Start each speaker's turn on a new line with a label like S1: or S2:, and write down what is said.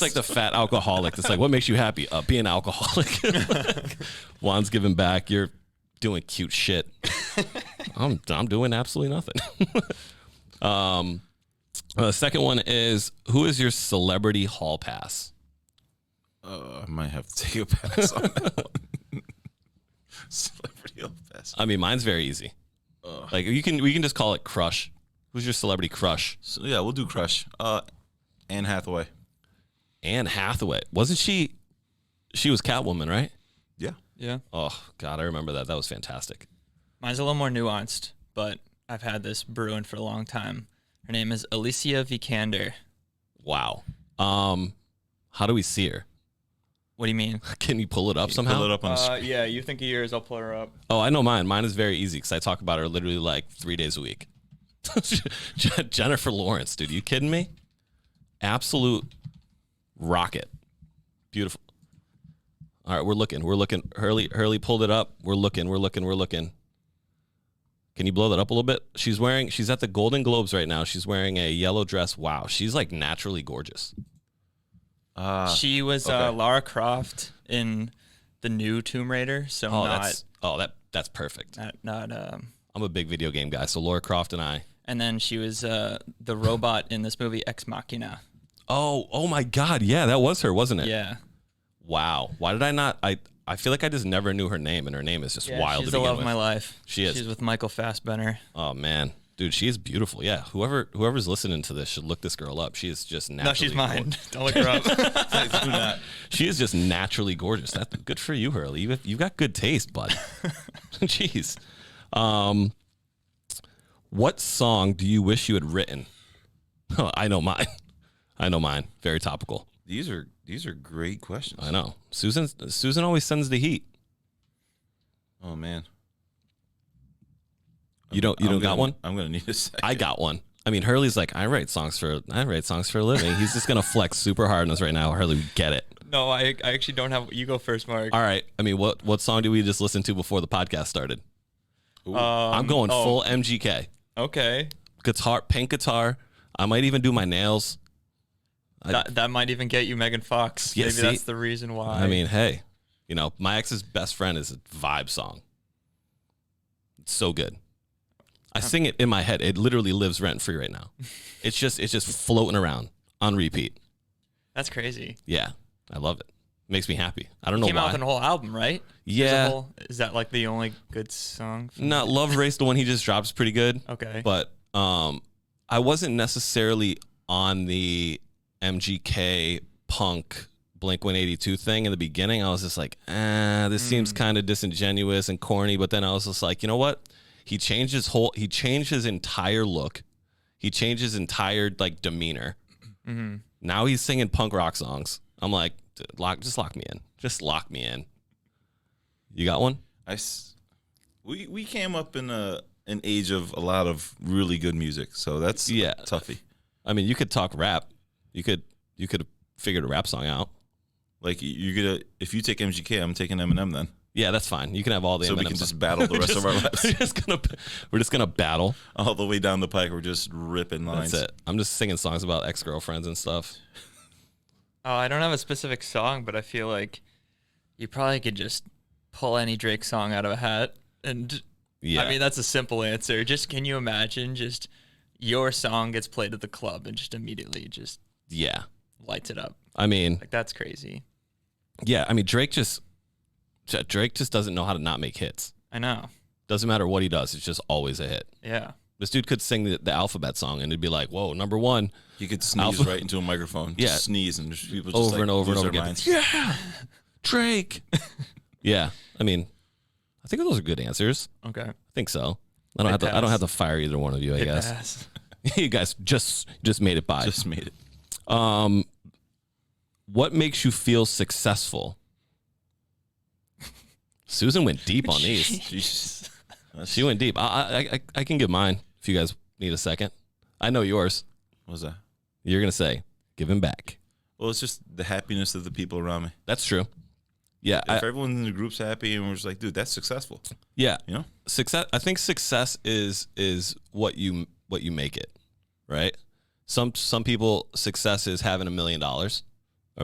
S1: like the fat alcoholic. That's like, what makes you happy? Uh, being alcoholic. Like, Juan's giving back. You're doing cute shit. I'm I'm doing absolutely nothing. um, uh, the second one is who is your celebrity hall pass?
S2: Uh, I might have to take a pass on that one. Celebrity of best.
S1: I mean, mine's very easy.
S2: Ugh.
S1: Like you can we can just call it crush. Who's your celebrity crush?
S2: So yeah, we'll do Crush. Uh, Anne Hathaway.
S1: Anne Hathaway. Wasn't she? She was Catwoman, right?
S2: Yeah.
S3: Yeah.
S1: Oh God, I remember that. That was fantastic.
S3: Mine's a little more nuanced, but I've had this brewing for a long time. Her name is Alicia Vikander.
S1: Wow. Um, how do we see her?
S3: What do you mean?
S1: Can you pull it up somehow?
S2: Pull it up on the screen.
S3: Uh, yeah, you think of yours. I'll pull her up.
S1: Oh, I know mine. Mine is very easy because I talk about her literally like three days a week. Je- Jennifer Lawrence, dude, you kidding me? Absolute rocket, beautiful. All right, we're looking. We're looking. Hurley, Hurley pulled it up. We're looking. We're looking. We're looking. Can you blow that up a little bit? She's wearing. She's at the Golden Globes right now. She's wearing a yellow dress. Wow, she's like naturally gorgeous. Ah,
S2: Uh,
S3: she was uh,
S2: okay.
S3: Lara Croft in the new Tomb Raider, so
S1: Oh,
S3: not,
S1: that's oh that that's perfect.
S3: not not um.
S1: I'm a big video game guy, so Laura Croft and I.
S3: And then she was uh, the robot in this movie Ex Machina.
S1: Oh, oh my God, yeah, that was her, wasn't it?
S3: Yeah,
S1: Wow. Why did I not? I I feel like I just never knew her name, and her name is just
S3: yeah
S1: wild.
S3: She's
S1: to
S3: the
S1: begin
S3: love
S1: with.
S3: of my life.
S1: She is.
S3: She's with Michael Fassbender.
S1: Oh man, dude, she is beautiful. Yeah. Whoever whoever's listening to this should look this girl up. She is just naturally.
S3: No, she's mine.
S1: gorgeous.
S3: Don't look her up.
S2: do not.
S1: She is just naturally gorgeous. That's good for you, Hurley. You've, you've got good taste, bud. Jeez. Um, what song do you wish you had written? Oh, I know mine. I know mine. Very topical.
S2: These are these are great questions.
S1: I know. Susan. Susan always sends the heat.
S2: Oh man.
S1: You don't. You
S2: I'm
S1: don't got
S2: gonna-
S1: one.
S2: I'm gonna need a second.
S1: I got one. I mean, Hurley's like, I write songs for I write songs for a living. He's just gonna flex super hard on us right now. Hurley, we get it.
S3: no, I, I actually don't have. You go first, Mark.
S1: All right. I mean, what what song did we just listen to before the podcast started?
S2: Ooh.
S1: I'm going
S3: oh.
S1: full MGK.
S3: Okay,
S1: Guitar, pink guitar. I might even do my nails. I-
S3: that, that might even get you Megan Fox.
S1: Yeah,
S3: Maybe
S1: see?
S3: that's the reason why.
S1: I mean, hey, you know, my ex's best friend is a vibe song. It's so good. I sing it in my head. It literally lives rent free right now. It's just it's just floating around on repeat.
S3: that's crazy.
S1: Yeah, I love it. Makes me happy. I don't know
S3: Came
S1: why.
S3: out with a whole album, right? There's a
S1: yeah,
S3: whole- is that like the only good song? from-
S1: Not Love Race, the one he just drops, pretty good.
S3: Okay.
S1: But um, I wasn't necessarily on the MGK punk Blink 182 thing in the beginning. I was just like, ah, this seems kind of disingenuous and corny. But then I was just like, you know what? He changed his whole. He changed his entire look. He changed his entire like demeanor. Now he's singing punk rock songs. I'm like, "D- lock, just lock me in. Just lock me in. You got one?
S2: I s- we we came up in a an age of a lot of really good music, so that's
S1: Yeah.
S2: toughy.
S1: I mean, you could talk rap. You could you could have figured a rap song out.
S2: Like you- you get a if you take MGK, I'm taking Eminem then,
S1: Yeah, that's fine. You can have all the
S2: so we
S1: M&Ms.
S2: can just battle the
S1: We're
S2: rest of our
S1: just-
S2: lives
S1: We're just gonna we're just gonna battle.
S2: all the way down the pike. We're just ripping lines.
S1: That's it. I'm just singing songs about ex girlfriends and stuff.
S3: Oh, I don't have a specific song, but I feel like you probably could just pull any Drake song out of a hat. And
S1: Yeah,
S3: I mean, that's a simple answer. Just can you imagine just your song gets played at the club and just immediately just
S1: yeah.
S3: lights it up?
S1: I mean,
S3: Like, that's crazy.
S1: yeah. I mean, Drake just J- Drake just doesn't know how to not make hits.
S3: I know.
S1: Doesn't matter what he does, it's just always a hit.
S3: Yeah.
S1: This dude could sing the, the alphabet song and it'd be like, whoa, number one,
S2: You could sneeze
S1: Alpha-
S2: right into a microphone.
S1: Yeah.
S2: just sneeze and just, people just
S1: over
S2: like,
S1: and over and
S2: lose
S1: over
S2: their
S1: again.
S2: minds.
S1: Yeah, Drake. yeah, I mean, I think those are good answers.
S3: Okay.
S1: I think so. I don't have to. I don't
S3: pass.
S1: have to fire either one of you. I
S3: Hit
S1: guess
S3: pass.
S1: you guys just just made it by.
S2: Just made it.
S1: um, what makes you feel successful? Susan went deep on these.
S2: Jesus. That's-
S1: She went deep. I, I I I can give mine if you guys need a second. I know yours.
S2: What was that?
S1: You're gonna say giving back.
S2: Well, it's just the happiness of the people around me.
S1: That's true. Yeah, I,
S2: If everyone in the group's happy and we're just like, dude, that's successful.
S1: yeah.
S2: You know?
S1: success i think success is is what you what you make it right some some people success is having a million dollars